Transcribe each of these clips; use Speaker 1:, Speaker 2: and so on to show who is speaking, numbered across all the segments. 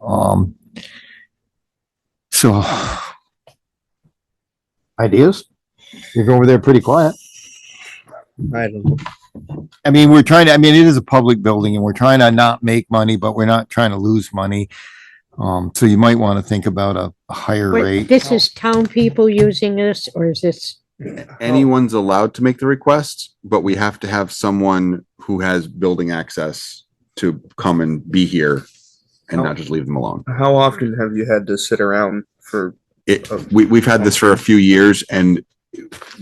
Speaker 1: Um, so
Speaker 2: Ideas? You're over there pretty quiet.
Speaker 3: I don't,
Speaker 1: I mean, we're trying to, I mean, it is a public building and we're trying to not make money, but we're not trying to lose money. Um, so you might want to think about a a higher
Speaker 4: Wait,
Speaker 1: rate.
Speaker 4: This is town people using this, or is this,
Speaker 5: anyone's allowed to make the request, but we have to have someone who has building access to come and be here and not just leave them alone.
Speaker 3: how often have you had to sit around for?
Speaker 5: It, we, we've had this for a few years and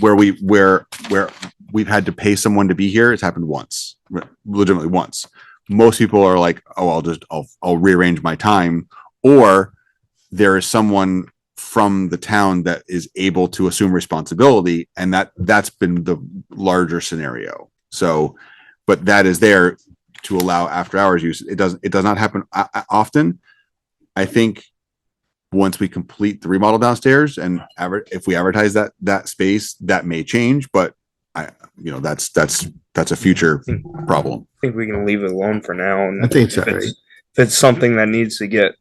Speaker 5: where we, where, where we've had to pay someone to be here, it's happened once, re- legitimately once. Most people are like, oh, I'll just, I'll, I'll rearrange my time. Or there is someone from the town that is able to assume responsibility. And that, that's been the larger scenario. So, but that is there to allow after hours use. It doesn't, it does not happen o- o- often. I think once we complete the remodel downstairs and adver- if we advertise that, that space, that may change, but I, you know, that's, that's, that's a future problem.
Speaker 3: I think we can leave it alone for now. And
Speaker 2: I think so.
Speaker 3: if it's, if it's something that needs to get,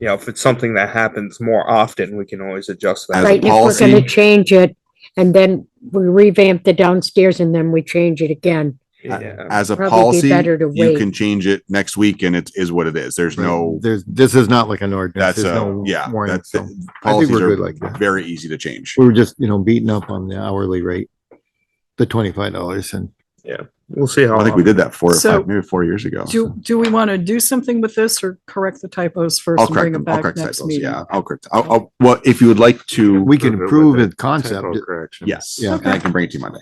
Speaker 3: you know, if it's something that happens more often, we can always adjust that.
Speaker 5: As a
Speaker 4: right, if we're gonna
Speaker 5: policy-
Speaker 4: change it, and then we revamp the downstairs and then we change it again?
Speaker 3: Yeah.
Speaker 5: As a
Speaker 4: Probably be
Speaker 5: policy,
Speaker 4: better to
Speaker 5: you
Speaker 4: wait.
Speaker 5: can change it next week and it is what it is. There's no,
Speaker 2: There's, this is not like an ordinance.
Speaker 5: that's
Speaker 2: There's
Speaker 5: a,
Speaker 2: no
Speaker 5: yeah,
Speaker 2: warning.
Speaker 5: that's,
Speaker 2: So I think
Speaker 5: policies
Speaker 2: we're good
Speaker 5: are
Speaker 2: like that.
Speaker 5: very easy to change.
Speaker 2: We were just, you know, beating up on the hourly rate, the twenty-five dollars and
Speaker 3: We'll see how.
Speaker 5: I think we did that four, or
Speaker 6: So-
Speaker 5: five, maybe four years ago.
Speaker 6: Do, do we want to do something with this or correct the typos first
Speaker 5: I'll
Speaker 6: and
Speaker 5: correct
Speaker 6: bring
Speaker 5: them.
Speaker 6: it
Speaker 5: I'll
Speaker 6: back
Speaker 5: correct
Speaker 6: next
Speaker 5: typos.
Speaker 6: meeting?
Speaker 5: Yeah, I'll correct. I'll, I'll, well, if you would like to,
Speaker 2: we can improve the concept.
Speaker 5: yes,
Speaker 2: Yeah.
Speaker 5: and I can bring it to you Monday.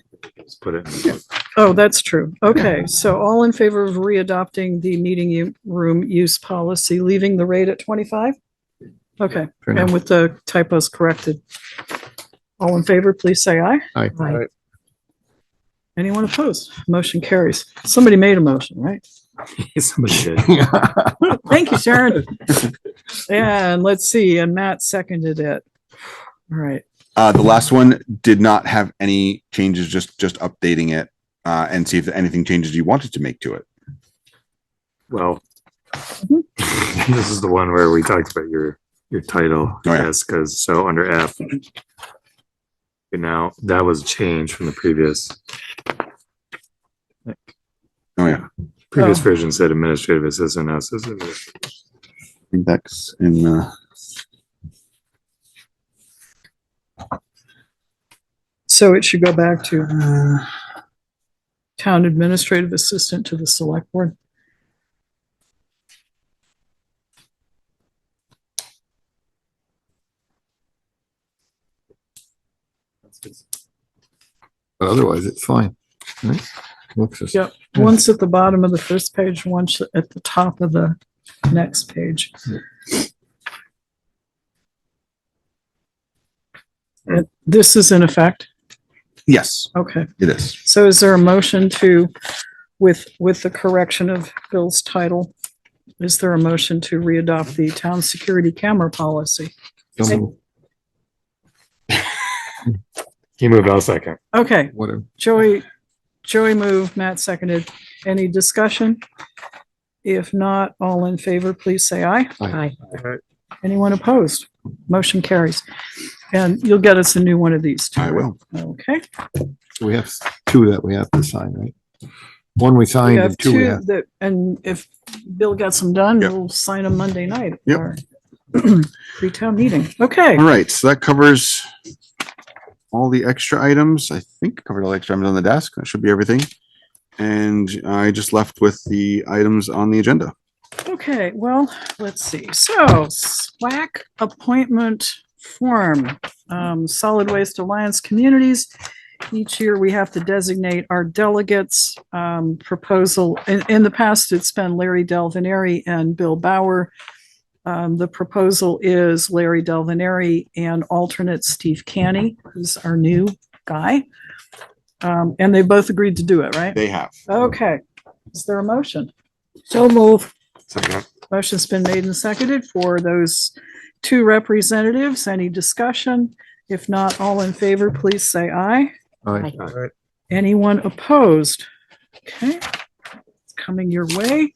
Speaker 6: Oh, that's true. Okay, so all in favor of readopting the meeting u- room use policy, leaving the rate at twenty-five? Okay,
Speaker 2: Fair enough.
Speaker 6: and with the typos corrected. All in favor, please say aye.
Speaker 4: Right.
Speaker 6: Anyone opposed? Motion carries. Somebody made a motion, right? Thank you, Sharon. And let's see, and Matt seconded it. All right,
Speaker 5: Uh, the last one did not have any changes, just, just updating it, uh, and see if anything changes you wanted to make to it.
Speaker 7: Well, this is the one where we talked about your, your title,
Speaker 5: Oh,
Speaker 7: I
Speaker 5: yeah.
Speaker 7: guess, because so under F. And now that was changed from the previous,
Speaker 5: Oh, yeah.
Speaker 7: previous
Speaker 6: Oh.
Speaker 7: version said administrative assistant, now it says administrative.
Speaker 5: I think that's in, uh,
Speaker 6: so it should go back to
Speaker 5: uh,
Speaker 6: town administrative assistant to the select board.
Speaker 2: But otherwise, it's fine. Right? Looks as-
Speaker 6: Yep, once at the bottom of the first page, once at the top of the next page. And This is in effect,
Speaker 5: yes,
Speaker 6: okay.
Speaker 5: it is.
Speaker 6: So is there a motion to, with, with the correction of Bill's title? Is there a motion to readopt the town security camera policy?
Speaker 2: Some-
Speaker 7: He moved out second.
Speaker 6: Okay,
Speaker 2: Whatever.
Speaker 6: Joey, Joey moved, Matt seconded. Any discussion? If not, all in favor, please say aye.
Speaker 4: Aye.
Speaker 6: Anyone opposed? Motion carries. And you'll get us a new one of these too.
Speaker 5: I will.
Speaker 6: Okay.
Speaker 2: We have s- two that we have to sign, right? One we
Speaker 6: We
Speaker 2: signed
Speaker 6: have
Speaker 2: and two we
Speaker 6: two
Speaker 2: have.
Speaker 6: that, and if Bill gets them done,
Speaker 5: Yep.
Speaker 6: we'll sign them Monday night. at
Speaker 5: Yep.
Speaker 6: our Pre-town meeting. Okay.
Speaker 5: All right, so that covers all the extra items. I think covered all the extra items on the desk. That should be everything. And I just left with the items on the agenda.
Speaker 6: Okay. Well, let's see. So SWAC appointment form, um, Solid Waste Alliance Communities. Each year we have to designate our delegates, um, proposal. In, in the past, it's been Larry Delvenary and Bill Bauer. Um, the proposal is Larry Delvenary and alternate Steve Canny, who's our new guy. Um, and they both agreed to do it, right?
Speaker 5: They have.
Speaker 6: Okay. Is there a motion?
Speaker 4: So move,
Speaker 6: Motion's been made and seconded for those two representatives. Any discussion? If not, all in favor, please say aye.
Speaker 2: Aye.
Speaker 6: Anyone opposed? Okay, it's coming your way.